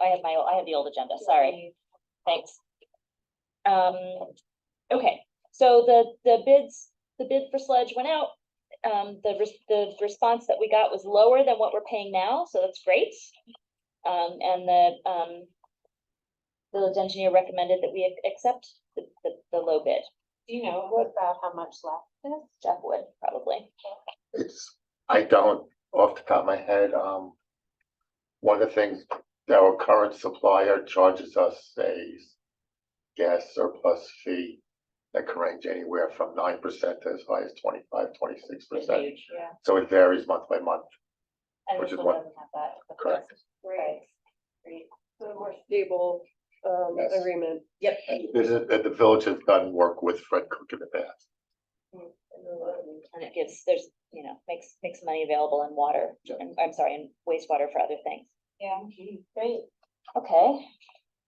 I have my, I have the old agenda, sorry, thanks. Um, okay, so the, the bids, the bid for sludge went out. Um, the, res- the response that we got was lower than what we're paying now, so that's great. Um, and the, um, village engineer recommended that we ac- accept the, the, the low bid. Do you know what, about how much left is? Jeff would probably. It's, I don't, off the top of my head, um. One of the things that our current supplier charges us a gas surplus fee. That can range anywhere from nine percent to as high as 25, 26 percent, Huge. Yeah. so it varies month by month, And Which this is one what- doesn't have that. but correct? Right. Great. a more stable um Yes. agreement. Yep. And This is, that the village has done work with Fred Cook in the past, And it gives, there's, you know, makes, makes money available in water, Yeah. and I'm sorry, in wastewater for other things. Yeah, great. Okay,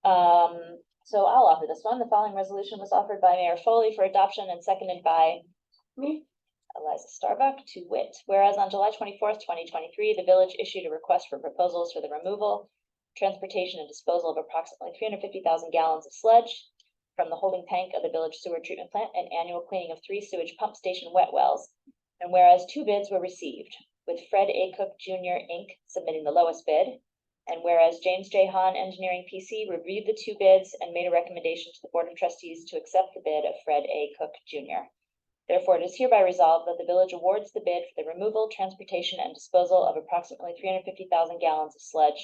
um, so I'll offer this one. The following resolution was offered by Mayor Foley for adoption and seconded by Me? Eliza Starbuck to wit, whereas on July twenty-fourth, twenty twenty-three, the village issued a request for proposals for the removal, transportation and disposal of approximately three hundred fifty thousand gallons of sludge from the holding tank of the village sewer treatment plant and annual cleaning of three sewage pump station wet wells. And whereas two bids were received, with Fred A. Cook Junior Inc. submitting the lowest bid. And whereas James J. Hahn Engineering PC reviewed the two bids and made a recommendation to the Board of Trustees to accept the bid of Fred A. Cook Junior. Therefore, it is hereby resolved that the village awards the bid for the removal, transportation, and disposal of approximately three hundred fifty thousand gallons of sludge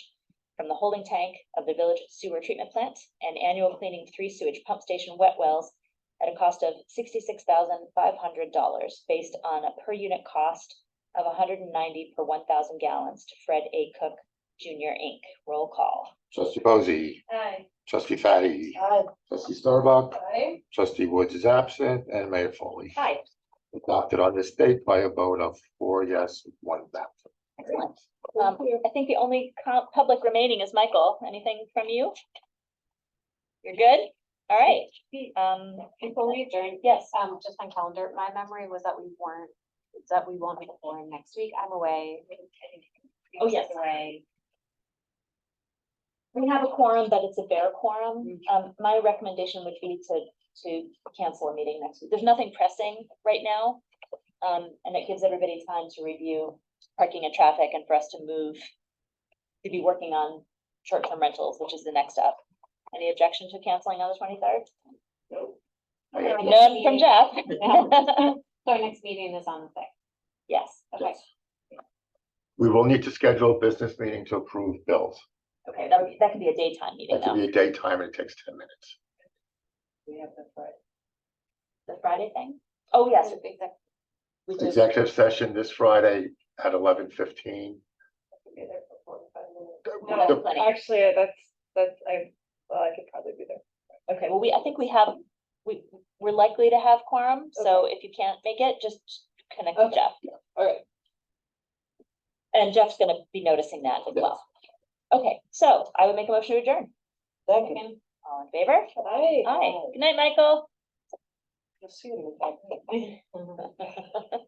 from the holding tank of the village sewer treatment plant and annual cleaning of three sewage pump station wet wells at a cost of sixty-six thousand five hundred dollars, based on a per unit cost of hundred and ninety per one thousand gallons to Fred A. Cook Junior, Inc. Roll call. trustee Posey, Hi. trustee Fatty, Hi. trustee Starbuck, trustee Woods is absent, and Mayor Foley. Hi, Adopted on this date by a vote of four yes, one absent. excellent. Um, I think the only co- public remaining is Michael. Anything from you? You're good? All right. Um, Before we adjourn, yes, um, just on calendar, my memory was that we weren't, that we won't be born next week. I'm away. Oh, yes. Away. we have a quorum, but it's a bare quorum. Mm. Um, my recommendation would be to, to cancel a meeting next week. There's nothing pressing right now. Um, and it gives everybody time to review parking and traffic and for us to move to be working on short-term rentals, which is the next step. Any objection to canceling on the twenty-third? I have no- None from Jeff. Um, So our next meeting is on the sixth. Yes, Okay. We will need to schedule a business meeting to approve bills. okay, that would, be- that could be a daytime meeting That could though. be a daytime and it takes ten minutes. The Friday thing? Oh, yes, Exactly. we do. Executive session this Friday at eleven fifteen. No, that's plenty. Actually, I- that's, that's, I, well, I could probably be there. Okay, well, we, I think we have, we, we're likely to have quorum, so if you can't make it, just connect with Okay. Jeff. All right. And Jeff's gonna be noticing that as well. Okay, so I would make a motion to adjourn. Second. All in favor? Hi. Aye. Good night, Michael. I'll see you in a minute.